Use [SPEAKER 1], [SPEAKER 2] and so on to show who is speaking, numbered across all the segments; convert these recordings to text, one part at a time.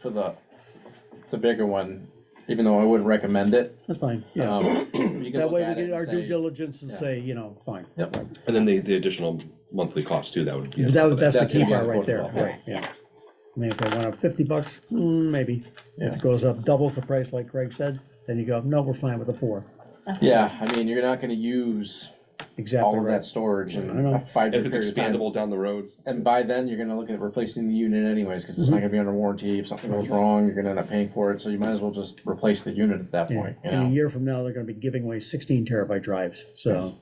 [SPEAKER 1] for the, the bigger one, even though I wouldn't recommend it. Um,
[SPEAKER 2] That's fine,
[SPEAKER 1] Uh,
[SPEAKER 2] yeah.
[SPEAKER 1] That
[SPEAKER 2] That way we get our due diligence and
[SPEAKER 1] yeah.
[SPEAKER 2] say, you know, fine.
[SPEAKER 1] Yep.
[SPEAKER 3] And then the, the additional monthly cost too, that would be.
[SPEAKER 2] That was, that's the
[SPEAKER 1] That's
[SPEAKER 2] key
[SPEAKER 1] the
[SPEAKER 2] part right there,
[SPEAKER 1] affordable, yeah.
[SPEAKER 2] right, yeah. I mean, if they went up fifty bucks, mm, maybe. If
[SPEAKER 1] Yeah.
[SPEAKER 2] it goes up doubles the price like Craig said, then you go, no, we're fine with the four.
[SPEAKER 1] Yeah, I mean, you're not gonna use
[SPEAKER 2] Exactly
[SPEAKER 1] all of that
[SPEAKER 2] right.
[SPEAKER 1] storage
[SPEAKER 2] I
[SPEAKER 1] in
[SPEAKER 2] know.
[SPEAKER 1] a five-year
[SPEAKER 3] If
[SPEAKER 1] period
[SPEAKER 3] it's
[SPEAKER 1] of time.
[SPEAKER 3] expandable down the roads,
[SPEAKER 1] And by then, you're gonna look at replacing the unit anyways, cause it's
[SPEAKER 2] Mm-hmm.
[SPEAKER 1] not gonna be under warranty, if something goes wrong, you're gonna end up paying for it, so you might as well just replace the unit at that
[SPEAKER 2] Yeah.
[SPEAKER 1] point, you
[SPEAKER 2] In a
[SPEAKER 1] know?
[SPEAKER 2] year from now, they're gonna be giving away sixteen terabyte drives, so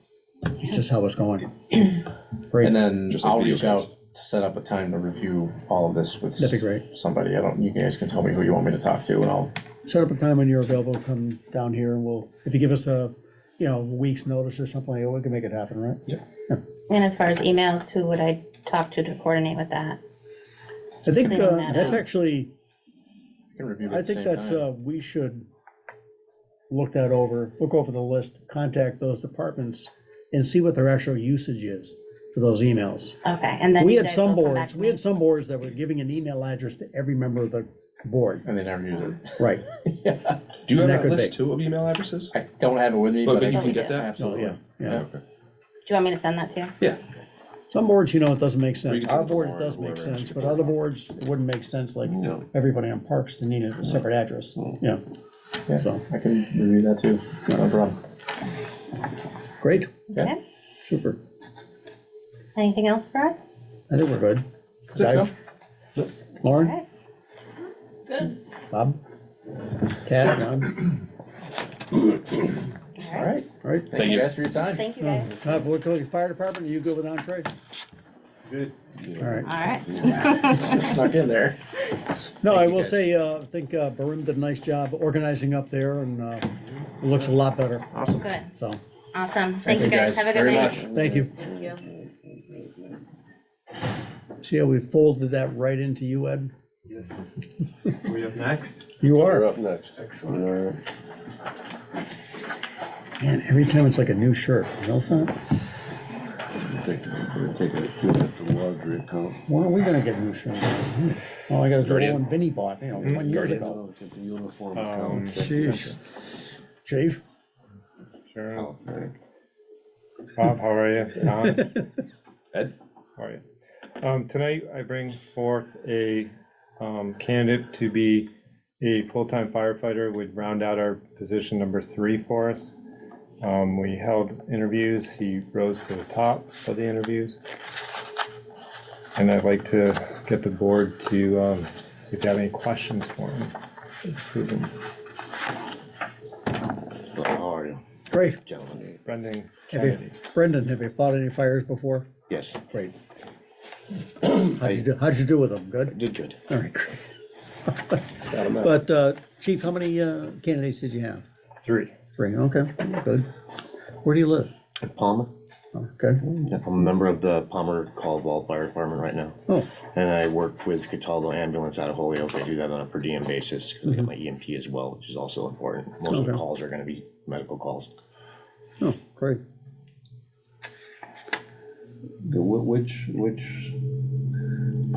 [SPEAKER 2] it's just how it's going.
[SPEAKER 1] And
[SPEAKER 2] Great,
[SPEAKER 1] then
[SPEAKER 3] Just like
[SPEAKER 1] I'll
[SPEAKER 3] video
[SPEAKER 1] reach
[SPEAKER 3] games.
[SPEAKER 1] out to set up a time to review all of this with
[SPEAKER 2] that'd be great.
[SPEAKER 1] somebody, I don't, you guys can tell me who you want me to talk to, and I'll,
[SPEAKER 2] Set up a time when you're available, come down here and we'll, if you give us a, you know, week's notice or something, like that, we can make it happen, right?
[SPEAKER 4] And as far as emails, who would I talk to to coordinate with that?
[SPEAKER 2] I think,
[SPEAKER 4] Figuring
[SPEAKER 2] uh,
[SPEAKER 4] that
[SPEAKER 2] that's
[SPEAKER 4] out.
[SPEAKER 2] actually,
[SPEAKER 1] you can review it
[SPEAKER 2] I
[SPEAKER 1] at the
[SPEAKER 2] think
[SPEAKER 1] same
[SPEAKER 2] that's,
[SPEAKER 1] time.
[SPEAKER 2] uh, we should look that over, look over the list, contact those departments and see what their actual usage is for those emails.
[SPEAKER 4] Okay, and then.
[SPEAKER 2] We
[SPEAKER 4] you
[SPEAKER 2] had
[SPEAKER 4] guys
[SPEAKER 2] some
[SPEAKER 4] will come back
[SPEAKER 2] boards,
[SPEAKER 4] to
[SPEAKER 2] we
[SPEAKER 4] me.
[SPEAKER 2] had some boards that were giving an email address to every member of the board.
[SPEAKER 1] And they never use it.
[SPEAKER 2] Right.
[SPEAKER 3] do you have
[SPEAKER 2] That
[SPEAKER 3] that
[SPEAKER 2] could
[SPEAKER 3] list
[SPEAKER 2] be.
[SPEAKER 3] too of email addresses?
[SPEAKER 1] I don't have it with me,
[SPEAKER 3] But-
[SPEAKER 1] but
[SPEAKER 3] but
[SPEAKER 1] I
[SPEAKER 3] you
[SPEAKER 1] can get that,
[SPEAKER 2] So, Oh, yeah,
[SPEAKER 1] absolutely.
[SPEAKER 2] yeah.
[SPEAKER 3] Okay.
[SPEAKER 4] Do you want me to send that to you?
[SPEAKER 2] Some boards, you know, it doesn't make
[SPEAKER 3] We
[SPEAKER 2] sense.
[SPEAKER 3] can
[SPEAKER 2] Our
[SPEAKER 3] send it to
[SPEAKER 2] board, it
[SPEAKER 3] Lauren or Mm-hmm.
[SPEAKER 2] does make
[SPEAKER 3] whoever.
[SPEAKER 2] sense, but other boards, it wouldn't make sense, like
[SPEAKER 3] No.
[SPEAKER 2] everybody on parks to need
[SPEAKER 3] Mm-hmm.
[SPEAKER 2] a separate address, yeah.
[SPEAKER 1] Yeah.
[SPEAKER 2] So,
[SPEAKER 1] I can review that too, no problem.
[SPEAKER 2] great,
[SPEAKER 1] Okay.
[SPEAKER 4] Okay.
[SPEAKER 2] super.
[SPEAKER 4] Anything else for us?
[SPEAKER 2] I think we're good.
[SPEAKER 3] think
[SPEAKER 2] Guys? Lauren,
[SPEAKER 4] Okay. Good.
[SPEAKER 2] Bob? Kat, Ron?
[SPEAKER 4] All right,
[SPEAKER 2] All right.
[SPEAKER 1] Thank you
[SPEAKER 3] you.
[SPEAKER 1] guys for your time.
[SPEAKER 4] thank you guys.
[SPEAKER 2] Uh, what, fire department, are you good with entree? Good. All
[SPEAKER 4] All
[SPEAKER 2] right.
[SPEAKER 4] right.
[SPEAKER 1] Snuck in there.
[SPEAKER 2] No,
[SPEAKER 3] Thank
[SPEAKER 2] I
[SPEAKER 3] you,
[SPEAKER 2] will
[SPEAKER 3] guys.
[SPEAKER 2] say, uh, I think, uh, Barim did a nice job organizing up there and, uh, it looks a lot better,
[SPEAKER 1] Awesome.
[SPEAKER 4] Good,
[SPEAKER 2] so,
[SPEAKER 4] awesome. Thank you guys. Have a good
[SPEAKER 1] very
[SPEAKER 4] night.
[SPEAKER 1] much.
[SPEAKER 2] thank you.
[SPEAKER 4] Thank you.
[SPEAKER 2] See how we folded that right into you, Ed?
[SPEAKER 5] Yes. We up next?
[SPEAKER 2] You are.
[SPEAKER 3] up next.
[SPEAKER 5] Excellent.
[SPEAKER 2] Man, every time it's like a new shirt, you know that?
[SPEAKER 6] Take a, take a, look at the laundry account.
[SPEAKER 2] When are we gonna get new shirts? Hmm. All I got is the
[SPEAKER 3] Guardian.
[SPEAKER 2] one Vinnie bought, you know, one years ago.
[SPEAKER 6] Look at the uniform
[SPEAKER 5] Um,
[SPEAKER 6] account.
[SPEAKER 2] Jeez. Chief?
[SPEAKER 5] Sure.
[SPEAKER 6] Okay.
[SPEAKER 5] Bob, how are you? Tom,
[SPEAKER 3] Ed?
[SPEAKER 5] how are you? Um, tonight I bring forth a, um, candidate to be a full-time firefighter, would round out our position number three for us. Um, we held interviews, he rose to the top of the interviews. And I'd like to get the board to, um, see if you have any questions for him. Approve him.
[SPEAKER 6] So How are you,
[SPEAKER 2] Great.
[SPEAKER 6] gentlemen?
[SPEAKER 5] Brendan
[SPEAKER 2] Have you-
[SPEAKER 5] Kennedy.
[SPEAKER 2] Brendan, have you fought any fires before?
[SPEAKER 6] Yes,
[SPEAKER 2] Great. How'd you do, how'd you do with them? Good?
[SPEAKER 6] did good.
[SPEAKER 2] All right. But, uh, Chief, how many uh, candidates did you have?
[SPEAKER 5] Three.
[SPEAKER 2] Three, okay, good. Where do you live?
[SPEAKER 6] Palmer,
[SPEAKER 2] Okay,
[SPEAKER 6] I'm a member of the Palmer Caldwell Fire Department right now.
[SPEAKER 2] oh,
[SPEAKER 6] And I work with Cataldo Ambulance out of Holyoke. I do that on a per diem basis because I get my EMP as well, which is also important. Most of the
[SPEAKER 2] Okay.
[SPEAKER 6] calls are gonna be medical calls.
[SPEAKER 2] oh, great.
[SPEAKER 7] The whi- Which, which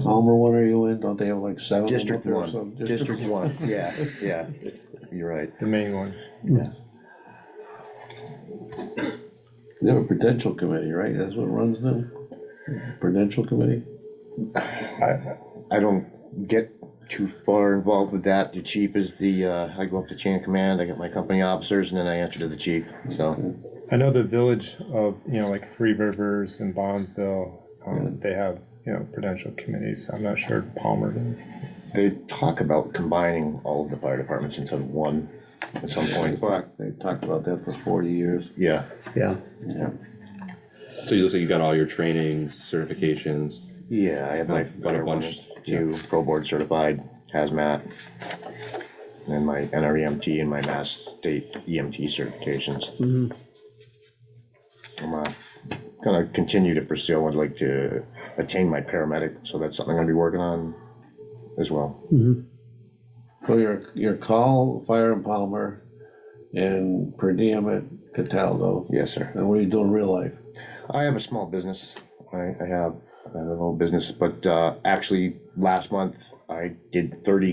[SPEAKER 7] Palmer one are you in? Don't they have like seven? of them
[SPEAKER 6] District
[SPEAKER 7] up there or
[SPEAKER 6] one,
[SPEAKER 7] something?
[SPEAKER 6] district one, yeah, yeah. You're right.
[SPEAKER 5] The main one.
[SPEAKER 7] They have a prudential committee, right? That's what runs them? Prudential committee?
[SPEAKER 6] I don't get too far involved with that. The chief is the, uh, I go up the chain of command, I get my company officers, and then I answer to the chief, so.
[SPEAKER 5] I know the village of, you know, like Three Rivers and Bonneville, um, they have, you know, prudential committees. I'm not sure Palmer does.
[SPEAKER 6] They talk about combining all of the fire departments into one at some point, but,
[SPEAKER 7] They've talked about that for forty years.
[SPEAKER 6] yeah.
[SPEAKER 2] Yeah,
[SPEAKER 7] Yeah.
[SPEAKER 3] So you look like you got all your trainings, certifications,
[SPEAKER 6] Yeah, I have my
[SPEAKER 3] I've got a
[SPEAKER 6] fire one,
[SPEAKER 3] bunch,
[SPEAKER 6] two, pro board certified hazmat, and my NREMT and my Mass State EMT certifications.
[SPEAKER 2] mhm,
[SPEAKER 6] I'm uh, gonna continue to pursue, I'd like to attain my paramedic, so that's something I'm gonna be working on as well.
[SPEAKER 2] mhm.
[SPEAKER 7] So your, your call, fire in Palmer, and per diem at Cataldo.
[SPEAKER 6] Yes, sir.
[SPEAKER 7] And what do you do in real life?
[SPEAKER 6] I have a small business. I, I have, I have a little business, but, uh, actually, last month, I did thirty